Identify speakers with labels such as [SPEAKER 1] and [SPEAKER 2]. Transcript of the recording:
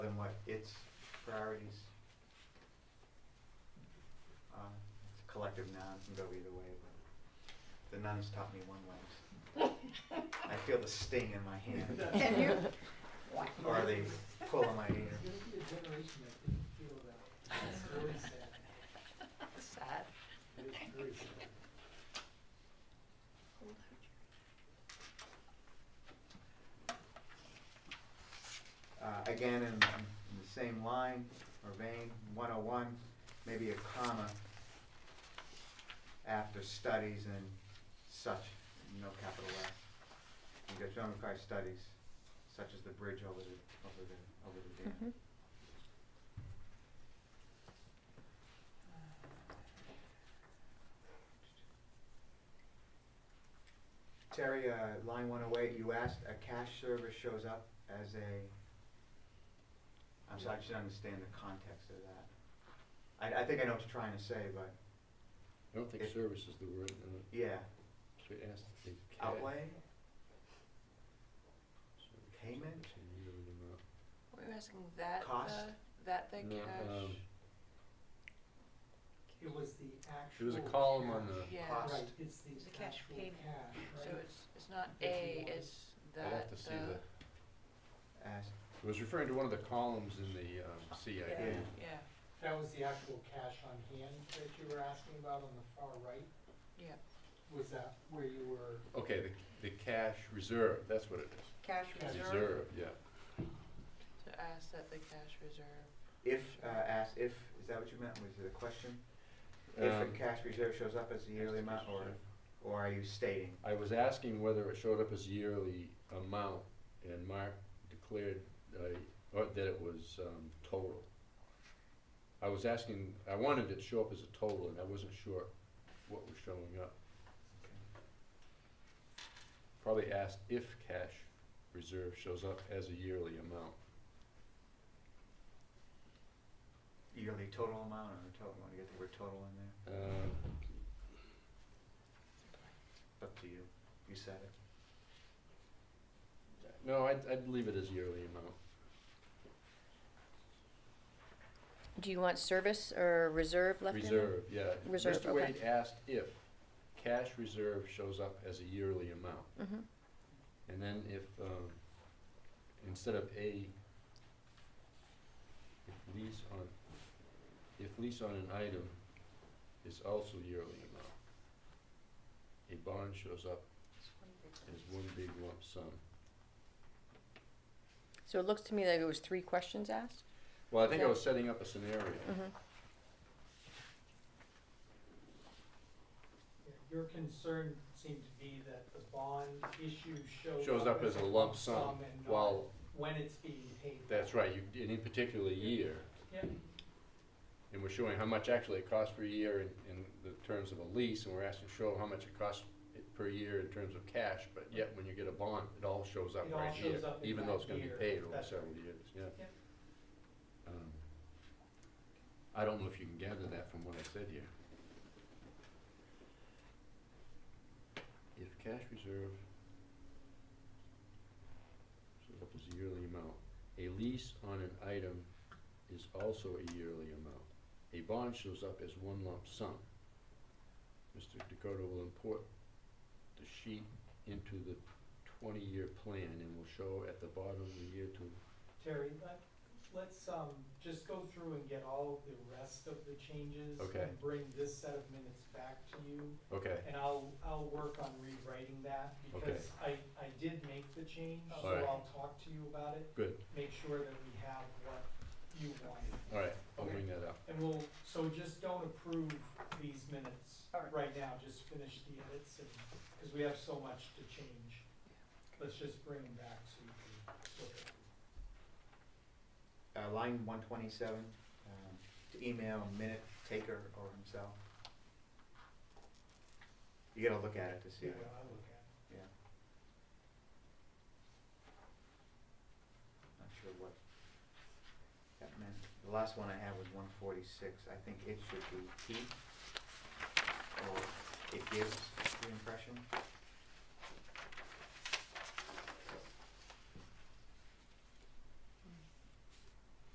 [SPEAKER 1] what its priorities are. It's a collective noun, it can go either way, but the nuns taught me one way. I feel the sting in my hand.
[SPEAKER 2] Can you?
[SPEAKER 1] Or they pull on my ear.
[SPEAKER 3] There's gonna be a generation that didn't feel that. It's very sad.
[SPEAKER 2] Sad.
[SPEAKER 3] It's very sad.
[SPEAKER 1] Uh, Again, in in the same line or vein, 101, maybe a comma after studies and such, no capital S. You got John McCarthy studies, such as the bridge over the, over the, over the dam. Terry, uh, line 108, you asked, a cash service shows up as a, I'm sorry, I should understand the context of that. I, I think I know what you're trying to say, but,
[SPEAKER 4] I don't think
[SPEAKER 1] It-
[SPEAKER 4] service is the word, uh,
[SPEAKER 1] yeah,
[SPEAKER 4] so it has to be. ca-
[SPEAKER 1] outlay?
[SPEAKER 4] service,
[SPEAKER 1] Payment?
[SPEAKER 4] service, and you don't know.
[SPEAKER 2] Were you asking that
[SPEAKER 1] Cost?
[SPEAKER 2] the, that uh, the
[SPEAKER 4] No,
[SPEAKER 2] cash?
[SPEAKER 4] um,
[SPEAKER 3] It was the actual.
[SPEAKER 4] There was a column on
[SPEAKER 3] cash.
[SPEAKER 4] the.
[SPEAKER 2] Yeah,
[SPEAKER 1] cost.
[SPEAKER 3] Right, it's
[SPEAKER 2] The
[SPEAKER 3] the
[SPEAKER 2] cash
[SPEAKER 3] actual
[SPEAKER 2] payment.
[SPEAKER 3] cash,
[SPEAKER 2] so
[SPEAKER 3] right?
[SPEAKER 2] it's, it's not
[SPEAKER 3] If you
[SPEAKER 2] A,
[SPEAKER 3] want-
[SPEAKER 2] it's
[SPEAKER 4] I'll have
[SPEAKER 2] that
[SPEAKER 4] to see
[SPEAKER 2] the,
[SPEAKER 4] the,
[SPEAKER 1] As,
[SPEAKER 4] it was referring to one of the columns in the um, CIP.
[SPEAKER 1] Yeah.
[SPEAKER 2] yeah,
[SPEAKER 3] That was the actual cash on hand that you were asking about on the far right?
[SPEAKER 2] yeah.
[SPEAKER 3] Was that where you were?
[SPEAKER 4] Okay, the, the cash reserve, that's what it is.
[SPEAKER 2] Cash
[SPEAKER 3] Cash reserve.
[SPEAKER 4] Reserve, yeah.
[SPEAKER 2] So ask that the cash reserve.
[SPEAKER 1] if, uh, as, if, is that what you meant, was it a question? If a
[SPEAKER 4] Um,
[SPEAKER 1] cash reserve shows up as a yearly amount, or, or are you stating?
[SPEAKER 4] I was asking whether it showed up as yearly amount, and Mark declared, uh, or that it was um, total. I was asking, I wanted it to show up as a total, and I wasn't sure what was showing up. Probably asked if cash reserve shows up as a yearly amount.
[SPEAKER 1] Yearly total amount, or total, want to get the word total in there?
[SPEAKER 4] Uh,
[SPEAKER 1] It's up to you, you said it.
[SPEAKER 4] No, I'd, I'd leave it as yearly amount.
[SPEAKER 5] Do you want service or reserve left in? there?
[SPEAKER 4] Reserve, yeah.
[SPEAKER 5] Reserve,
[SPEAKER 4] Mr. Wade
[SPEAKER 5] okay.
[SPEAKER 4] asked if cash reserve shows up as a yearly amount.
[SPEAKER 2] Mm-hmm.
[SPEAKER 5] Mhm.
[SPEAKER 4] And then if, um, instead of a, if lease on, if lease on an item is also yearly amount, a bond shows up as one big lump sum.
[SPEAKER 5] So it looks to me like it was three questions asked?
[SPEAKER 4] Well, I think I
[SPEAKER 5] Yeah.
[SPEAKER 4] was setting up a
[SPEAKER 2] Mm-hmm.
[SPEAKER 4] scenario.
[SPEAKER 5] Mhm.
[SPEAKER 3] Yeah, Your concern seemed to be that the bond issue shows up.
[SPEAKER 4] Shows up as a lump sum,
[SPEAKER 3] and not
[SPEAKER 4] while,
[SPEAKER 3] When it's being paid.
[SPEAKER 4] that's right, you, in any particular year.
[SPEAKER 3] Yep.
[SPEAKER 4] And we're showing how much actually it costs per year in, in the terms of a lease, and we're asking to show how much it costs it per year in terms of cash, but yet when you get a bond, it all shows up
[SPEAKER 3] It all
[SPEAKER 4] right
[SPEAKER 3] shows
[SPEAKER 4] here,
[SPEAKER 3] up in
[SPEAKER 4] even though it's
[SPEAKER 3] that
[SPEAKER 4] gonna be
[SPEAKER 3] year.
[SPEAKER 4] paid over
[SPEAKER 3] That's
[SPEAKER 4] several
[SPEAKER 3] right.
[SPEAKER 4] years, yeah.
[SPEAKER 3] Yep.
[SPEAKER 4] Um, I don't know if you can gather that from what I said here. If cash reserve shows up as a yearly amount, a lease on an item is also a yearly amount. A bond shows up as one lump sum. Mr. Dakota will import the sheet into the twenty-year plan and will show at the bottom of the year to,
[SPEAKER 3] Terry, let, let's, um, just go through and get all the rest of the changes.
[SPEAKER 4] Okay.
[SPEAKER 3] And bring this set of minutes back to you,
[SPEAKER 4] okay.
[SPEAKER 3] and I'll, I'll work on rewriting that, because I, I did make the change, so
[SPEAKER 4] All right.
[SPEAKER 3] I'll talk to you about it,
[SPEAKER 4] Good,
[SPEAKER 3] make sure that we have what you wanted.
[SPEAKER 4] all right, I'll bring that up.
[SPEAKER 3] And we'll, so just don't approve these minutes
[SPEAKER 2] All right.
[SPEAKER 3] right now, just finish the edits, and, because we have so much to change. Let's just bring them back so you can look at them.
[SPEAKER 1] Uh, line one twenty-seven, um, to email minute taker or himself. You gotta look at it to see
[SPEAKER 3] See
[SPEAKER 1] it,
[SPEAKER 3] what I look at.
[SPEAKER 1] yeah. Not sure what that meant. The last one I had was one forty-six, I think it should be he, or it gives the impression.